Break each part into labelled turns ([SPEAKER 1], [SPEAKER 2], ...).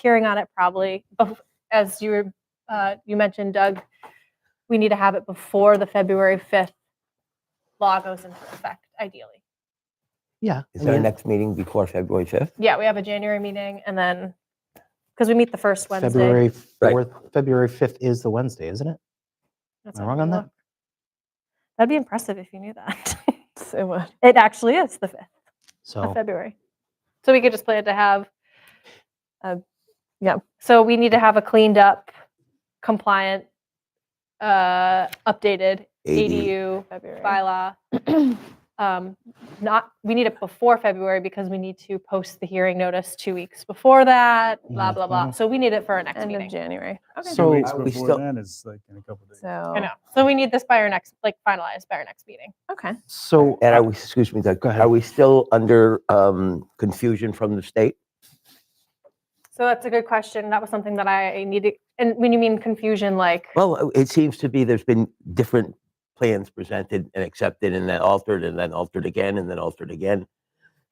[SPEAKER 1] peering on it probably, bef- as you were, uh, you mentioned, Doug, we need to have it before the February 5th law goes into effect, ideally.
[SPEAKER 2] Yeah.
[SPEAKER 3] Is
[SPEAKER 2] I
[SPEAKER 3] our
[SPEAKER 2] mean,
[SPEAKER 3] next meeting before February 5th?
[SPEAKER 1] Yeah, we have a January meeting and then, because we meet the first Wednesday.
[SPEAKER 2] February
[SPEAKER 3] Right.
[SPEAKER 2] 4th, February 5th is the Wednesday, isn't it?
[SPEAKER 1] That's
[SPEAKER 2] Am I
[SPEAKER 1] how
[SPEAKER 2] wrong
[SPEAKER 1] we
[SPEAKER 2] on
[SPEAKER 1] look.
[SPEAKER 2] that?
[SPEAKER 1] That'd be impressive if you knew that.
[SPEAKER 4] It would.
[SPEAKER 1] It actually is the 5th of
[SPEAKER 2] So,
[SPEAKER 1] February. So we could just plan to have.
[SPEAKER 4] Uh,
[SPEAKER 1] yeah.
[SPEAKER 4] yeah.
[SPEAKER 1] So we need to have a cleaned up, compliant, uh, updated ADU
[SPEAKER 4] February.
[SPEAKER 1] bylaw. Um, not, we need it before February because we need to post the hearing notice two weeks before that, blah, blah, blah.
[SPEAKER 2] Mhm.
[SPEAKER 1] So we need it for our next
[SPEAKER 4] Mm-hmm. End of
[SPEAKER 1] meeting.
[SPEAKER 4] January.
[SPEAKER 1] Okay.
[SPEAKER 2] So-
[SPEAKER 5] Two weeks
[SPEAKER 3] I- we
[SPEAKER 5] before
[SPEAKER 3] still-
[SPEAKER 5] then is like in a couple days.
[SPEAKER 4] So
[SPEAKER 1] I know. So we need this by our next, like finalized by our next meeting.
[SPEAKER 4] okay.
[SPEAKER 2] so uh,
[SPEAKER 3] And are we, excuse me, Doug,
[SPEAKER 2] Go ahead.
[SPEAKER 3] are we still under um, confusion from the state?
[SPEAKER 1] So that's a good question. That was something that I needed. And when you mean confusion, like,
[SPEAKER 3] Well, uh, it seems to be there's been different plans presented and accepted and then altered and then altered again and then altered again.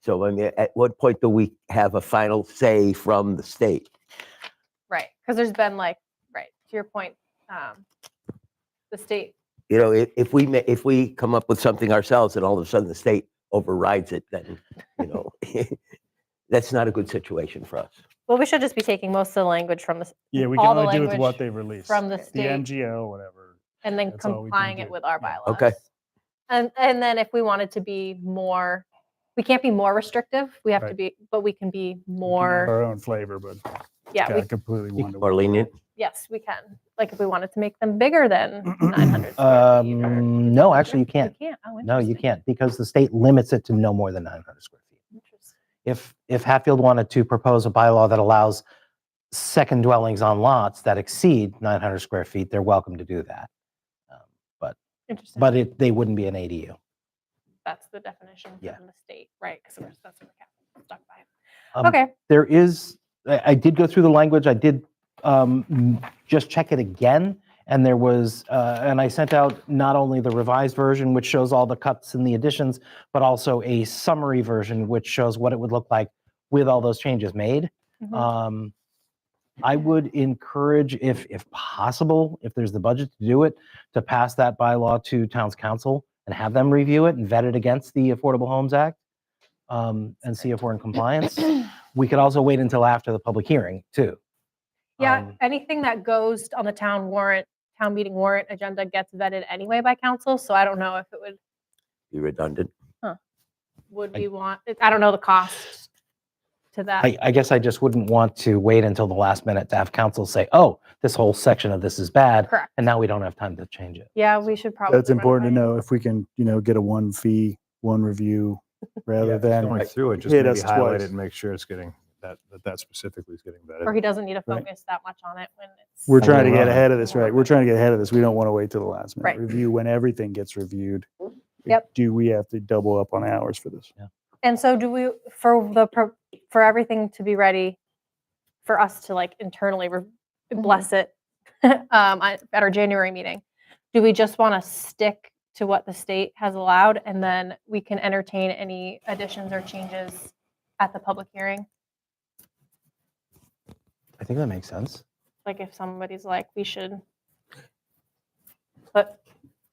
[SPEAKER 3] So I mean, at what point do we have a final say from the state?
[SPEAKER 1] right. Because there's been like, right, to your point, um, the state
[SPEAKER 3] You know, if, if we, ma- if we come up with something ourselves and all of a sudden the state overrides it, then, you know, that's not a good situation for us.
[SPEAKER 1] Well, we should just be taking most of the language from the,
[SPEAKER 5] Yeah, we can
[SPEAKER 1] all the
[SPEAKER 5] only do with
[SPEAKER 1] language
[SPEAKER 5] what they release.
[SPEAKER 1] from the
[SPEAKER 5] The
[SPEAKER 1] state
[SPEAKER 5] MGO, whatever.
[SPEAKER 1] and then
[SPEAKER 5] that's all we can
[SPEAKER 1] complying it
[SPEAKER 5] do.
[SPEAKER 1] with our
[SPEAKER 5] Yeah.
[SPEAKER 1] bylaws.
[SPEAKER 3] Okay.
[SPEAKER 1] And, and then if we wanted to be more, we can't be more restrictive, we have to
[SPEAKER 5] Right.
[SPEAKER 1] be, but we can be
[SPEAKER 5] We can have
[SPEAKER 1] more,
[SPEAKER 5] Our own flavor, but
[SPEAKER 1] yeah, we,
[SPEAKER 5] got completely one to
[SPEAKER 3] Or lenient?
[SPEAKER 1] yes, we can. Like if we wanted to make them bigger than 900 square feet. or-
[SPEAKER 2] um, no, actually, you can't.
[SPEAKER 1] You can't, oh,
[SPEAKER 2] No, you
[SPEAKER 1] interesting.
[SPEAKER 2] can't because the state limits it to no more than 900 square feet.
[SPEAKER 1] Interesting.
[SPEAKER 2] If, if Hatfield wanted to propose a bylaw that allows second dwellings on lots that exceed 900 square feet, they're welcome to do that. Um,
[SPEAKER 1] Interesting.
[SPEAKER 2] But it, they wouldn't be an ADU.
[SPEAKER 1] That's the definition from
[SPEAKER 2] Yeah.
[SPEAKER 1] the state, right? Because that's what we're stuck by.
[SPEAKER 2] Um,
[SPEAKER 1] Okay,
[SPEAKER 2] there is, I, I did go through the language, I did um, m- just check it again, and there was, uh, and I sent out not only the revised version, which shows all the cuts and the additions, but also a summary version, which shows what it would look like with all those changes made.
[SPEAKER 1] Mhm.
[SPEAKER 2] Um, I would encourage, if, if possible, if there's the budget to do it, to pass that bylaw to town's council and have them review it and vet it against the Affordable Homes Act um, and see if we're in compliance. We could also wait until after the public hearing too.
[SPEAKER 1] Yeah,
[SPEAKER 2] Um,
[SPEAKER 1] anything that goes on the town warrant, town meeting warrant agenda gets vetted anyway by council, so I don't know if it would,
[SPEAKER 3] Be redundant?
[SPEAKER 1] would
[SPEAKER 2] I-
[SPEAKER 1] we want, I don't know the cost to that.
[SPEAKER 2] I, I guess I just wouldn't want to wait until the last minute to have council say, oh, this whole section of this is bad.
[SPEAKER 1] Correct.
[SPEAKER 2] And now we don't have time to change it.
[SPEAKER 1] Yeah, we should probably.
[SPEAKER 5] That's important to know if we can, you know, get a one fee, one review rather than,
[SPEAKER 6] Going through it, just
[SPEAKER 5] hit
[SPEAKER 6] maybe
[SPEAKER 5] us
[SPEAKER 6] highlight
[SPEAKER 5] twice.
[SPEAKER 6] it and make sure it's getting, that, that that specifically is getting
[SPEAKER 1] Or
[SPEAKER 6] vetted.
[SPEAKER 1] he doesn't need to
[SPEAKER 5] Right.
[SPEAKER 1] focus that much on it when it's.
[SPEAKER 5] we're trying to
[SPEAKER 2] Right.
[SPEAKER 5] get ahead of this, right? We're trying to get ahead of this. We don't want to wait till the last
[SPEAKER 1] Right. Mm-hmm.
[SPEAKER 5] minute. Review when everything gets reviewed.
[SPEAKER 1] Yep.
[SPEAKER 5] Do we have to double up on hours for this?
[SPEAKER 1] And so do we, for the, pro- for everything to be ready, for us to like internally re-
[SPEAKER 5] Mm-hmm.
[SPEAKER 4] Mhm.
[SPEAKER 1] bless it um, I- at our January meeting, do we just want to stick to what the state has allowed and then we can entertain any additions or changes at the public hearing?
[SPEAKER 2] I think that makes sense.
[SPEAKER 1] Like if somebody's like, we should put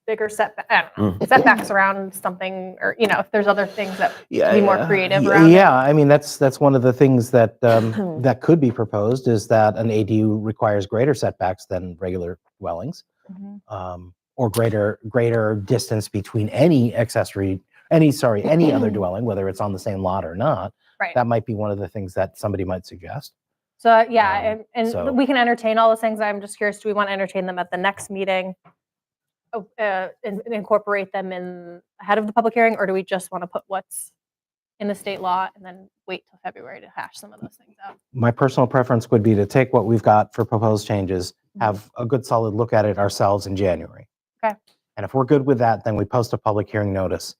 [SPEAKER 1] bigger setback, I don't
[SPEAKER 2] Mm.
[SPEAKER 1] know, setbacks around something, or, you know, if there's other things that
[SPEAKER 3] Yeah.
[SPEAKER 1] be more creative
[SPEAKER 2] Y-
[SPEAKER 1] around it.
[SPEAKER 2] Yeah, I mean, that's, that's one of the things that, um, that could be proposed is that an ADU requires greater setbacks than regular dwellings.
[SPEAKER 1] Mhm.
[SPEAKER 2] um, or greater greater distance between any accessory any sorry any other dwelling whether it's on the same lot or not
[SPEAKER 1] Right.
[SPEAKER 2] that might be one of the things that somebody might suggest
[SPEAKER 1] So uh, yeah,
[SPEAKER 2] Um,
[SPEAKER 1] and, and
[SPEAKER 2] so-
[SPEAKER 1] we can entertain all those things. I'm just curious, do we want to entertain them at the next meeting? Oh, Uh, and and incorporate them in ahead of the public hearing, or do we just want to put what's in the state law and then wait till February to hash some of those things out?
[SPEAKER 2] my personal preference would be to take what we've got for proposed changes have a good solid look at it ourselves in january
[SPEAKER 1] Mm-hmm. Okay.
[SPEAKER 2] and if we're good with that then we post a public hearing notice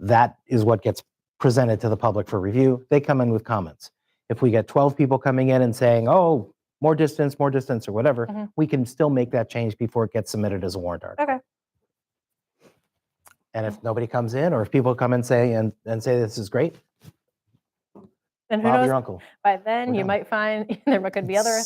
[SPEAKER 2] that is what gets presented to the public for review they come in with comments if we get 12 people coming in and saying oh more distance more distance or whatever
[SPEAKER 1] Mhm.
[SPEAKER 2] we can still make that change before it gets submitted as a warrant article
[SPEAKER 1] Okay.
[SPEAKER 2] and if nobody comes in or if people come and say and, and say this is great
[SPEAKER 1] And who
[SPEAKER 2] Bob,
[SPEAKER 1] knows?
[SPEAKER 2] your uncle.
[SPEAKER 1] By then,
[SPEAKER 2] We're
[SPEAKER 1] you
[SPEAKER 2] done.
[SPEAKER 1] might find there could be other